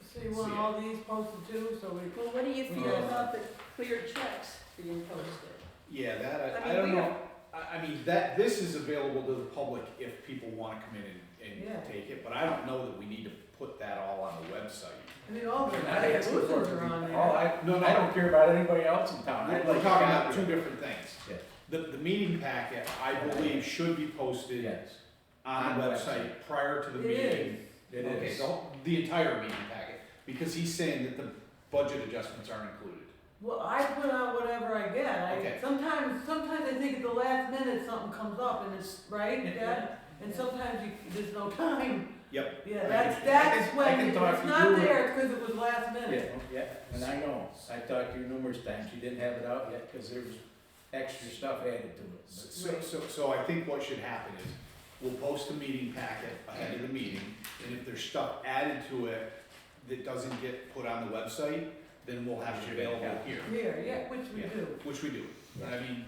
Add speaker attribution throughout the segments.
Speaker 1: So you want all these posted too, so we,
Speaker 2: Well, what do you feel
Speaker 3: Yeah.
Speaker 2: about the clear checks being posted?
Speaker 3: Yeah, that,
Speaker 2: I
Speaker 3: I, I
Speaker 2: mean,
Speaker 3: don't
Speaker 2: we
Speaker 3: know, I, I mean, that, this is available to the public if people wanna come in and,
Speaker 1: Yeah.
Speaker 3: and take it, but I don't know that we need to put that all on the website.
Speaker 1: I mean, all the,
Speaker 4: I'm
Speaker 1: all
Speaker 4: not
Speaker 1: the
Speaker 4: asking for it
Speaker 1: losers
Speaker 4: to
Speaker 1: are
Speaker 4: be,
Speaker 1: on
Speaker 4: all
Speaker 1: there.
Speaker 4: Oh, I,
Speaker 3: No, no.
Speaker 4: I don't care about anybody else in town.
Speaker 3: We're
Speaker 4: I'd
Speaker 3: we're
Speaker 4: like
Speaker 3: talking
Speaker 4: a
Speaker 3: about
Speaker 4: copy
Speaker 3: two
Speaker 4: of it.
Speaker 3: different things.
Speaker 4: Yeah.
Speaker 3: The, the meeting packet, I believe, should be posted
Speaker 4: Yes,
Speaker 3: on the website prior to
Speaker 1: It
Speaker 3: the meeting.
Speaker 4: it
Speaker 3: Okay,
Speaker 4: is.
Speaker 3: the, whole- the entire meeting packet, because he's saying that the budget adjustments aren't included.
Speaker 1: Well, I put out whatever I get,
Speaker 3: Okay.
Speaker 1: I, sometimes, sometimes I think at the last minute something comes up and it's, right, Dad? And sometimes you, there's no time.
Speaker 3: Yep.
Speaker 1: Yeah,
Speaker 3: I
Speaker 1: that's,
Speaker 3: can-
Speaker 4: I
Speaker 1: that's
Speaker 4: can- I
Speaker 1: when,
Speaker 4: can
Speaker 1: if
Speaker 4: talk
Speaker 1: it's
Speaker 4: you
Speaker 1: not
Speaker 4: through it.
Speaker 1: there, it's cause it was last
Speaker 4: Yeah,
Speaker 1: minute.
Speaker 4: yeah, and I know, I talked to you numerous times, you didn't have it out yet, cause there was extra stuff added to it. but-
Speaker 3: So, so, so I think what should happen is, we'll post the meeting packet ahead of the meeting, and if there's stuff added to it that doesn't get put on the website, then we'll have it available here,
Speaker 1: Here, yeah, which we
Speaker 3: Yeah.
Speaker 1: do.
Speaker 3: which we do. I mean,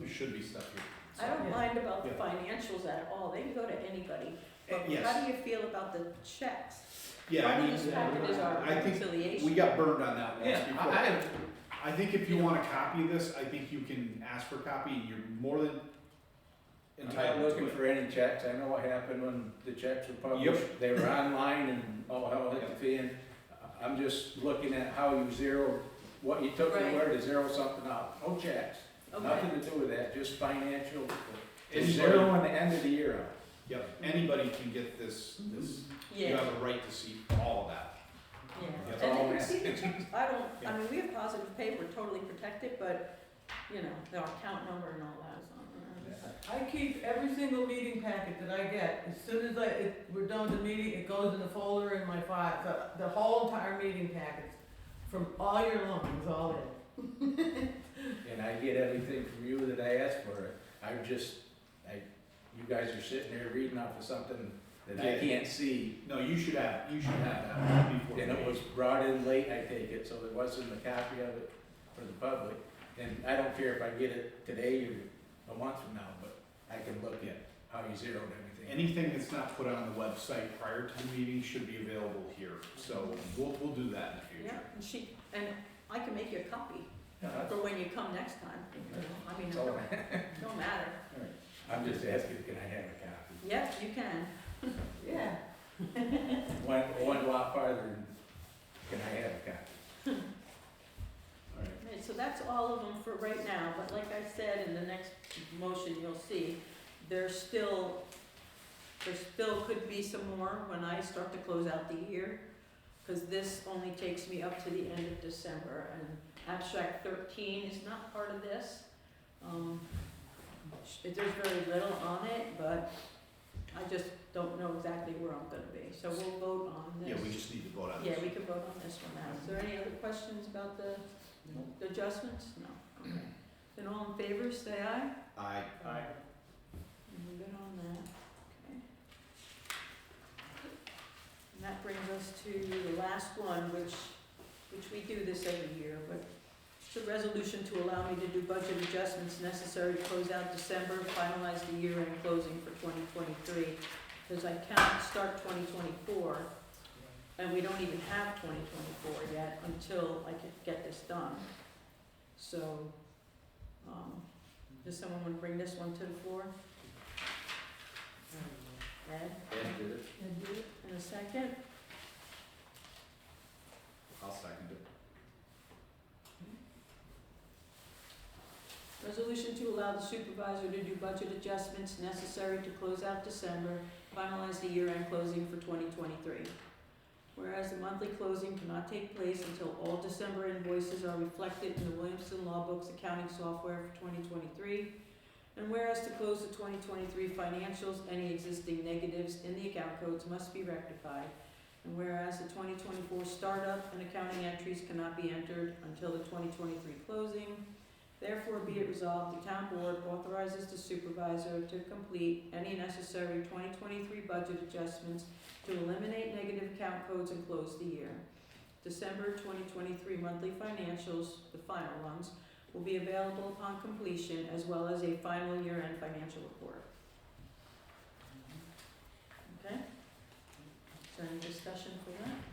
Speaker 3: there should be stuff here.
Speaker 2: I don't
Speaker 1: Yeah.
Speaker 2: mind about the
Speaker 3: Yeah.
Speaker 2: financials at all, they can go to anybody, but
Speaker 3: Eh, yes.
Speaker 2: how do you feel about the checks?
Speaker 3: Yeah, I mean,
Speaker 2: Part of this packet is our
Speaker 3: I think
Speaker 2: reconciliation.
Speaker 3: we got burned on that once
Speaker 4: Yeah, I,
Speaker 3: before.
Speaker 4: I,
Speaker 3: I think if you want a copy of this, I think you can ask for a copy, and you're more than
Speaker 4: I'm not
Speaker 3: entitled to
Speaker 4: looking
Speaker 3: it.
Speaker 4: for any checks, I know what happened when the checks were
Speaker 3: Yep.
Speaker 4: published, they were online and, oh, hell, I had to pay in. I- I'm just looking at how you zero, what you took and
Speaker 2: Right.
Speaker 4: where to zero something out, no checks,
Speaker 2: Okay,
Speaker 4: nothing to do with that, just financial,
Speaker 3: Anybody-
Speaker 4: zero on the end of the year out.
Speaker 3: Yep, anybody can get this, this, you
Speaker 2: yeah,
Speaker 3: have a right to see all of that.
Speaker 2: yeah.
Speaker 4: That's
Speaker 2: And
Speaker 4: all
Speaker 2: they
Speaker 4: I'm
Speaker 2: can see the checks, I don't,
Speaker 3: Yeah.
Speaker 2: I mean, we have positive pay, we're totally protected, but, you know, our account number and all that is on there.
Speaker 1: I keep every single meeting packet that I get, as soon as I, it, we're done with the meeting, it goes in the folder in my file, the, the whole entire meeting packets, from all year long, is all in.
Speaker 4: And I get everything from you that I ask for. I'm just, I, you guys are sitting there reading off of something that I
Speaker 3: Yeah.
Speaker 4: can't see.
Speaker 3: No, you should have, you should have that before.
Speaker 4: And it was brought in late, I take it, so there wasn't a copy of it for the public. And I don't care if I get it today or a month from now, but I can look at how you zeroed everything.
Speaker 3: Anything that's not put on the website prior to the meeting should be available here, so we'll, we'll do that in the
Speaker 2: Yeah,
Speaker 3: future.
Speaker 2: and she, and I can make you a copy
Speaker 4: Uh,
Speaker 2: for when you come next time, you know, I mean, it
Speaker 4: that's all
Speaker 2: don't,
Speaker 4: I-
Speaker 2: don't matter,
Speaker 4: I'm just asking, can I have a copy?
Speaker 2: yes, you can,
Speaker 1: Yeah,
Speaker 4: One, one lot farther, can I have a copy? All right.
Speaker 2: Okay, so that's all of them for right now, but like I said, in the next motion, you'll see, there's still, there still could be some more when I start to close out the year, cause this only takes me up to the end of December, and abstract thirteen is not part of this. Um, sh- there's very little on it, but I just don't know exactly where I'm gonna be, so we'll vote on
Speaker 3: Yeah,
Speaker 2: this.
Speaker 3: we just need to vote on
Speaker 2: Yeah,
Speaker 3: this.
Speaker 2: we can vote on this one now. Is there any other questions about the the adjustments? No. Okay. Then all in favor, say aye.
Speaker 3: I,
Speaker 4: Aye.
Speaker 2: And we're good on that, okay. And that brings us to the last one, which, which we do this every year, but it's a resolution to allow me to do budget adjustments necessary to close out December, finalize the year-end closing for twenty twenty-three. Cause I can't start twenty twenty-four, and we don't even have twenty twenty-four yet until I could get this done. So, um, does someone wanna bring this one to the floor? Ed,
Speaker 3: Ed did it.
Speaker 2: in a second,
Speaker 3: I'll second it.
Speaker 2: resolution to allow the supervisor to do budget adjustments necessary to close out December, finalize the year-end closing for twenty twenty-three. Whereas the monthly closing cannot take place until all December invoices are reflected in the Williamson Law Books accounting software for twenty twenty-three. And whereas to close the twenty twenty-three financials, any existing negatives in the account codes must be rectified. And whereas the twenty twenty-four startup and accounting entries cannot be entered until the twenty twenty-three closing. Therefore, be it resolved, the town board authorizes the supervisor to complete any necessary twenty twenty-three budget adjustments to eliminate negative account codes and close the year. December twenty twenty-three monthly financials, the final ones, will be available upon completion as well as a final year-end financial report. Okay? Is there any discussion for that?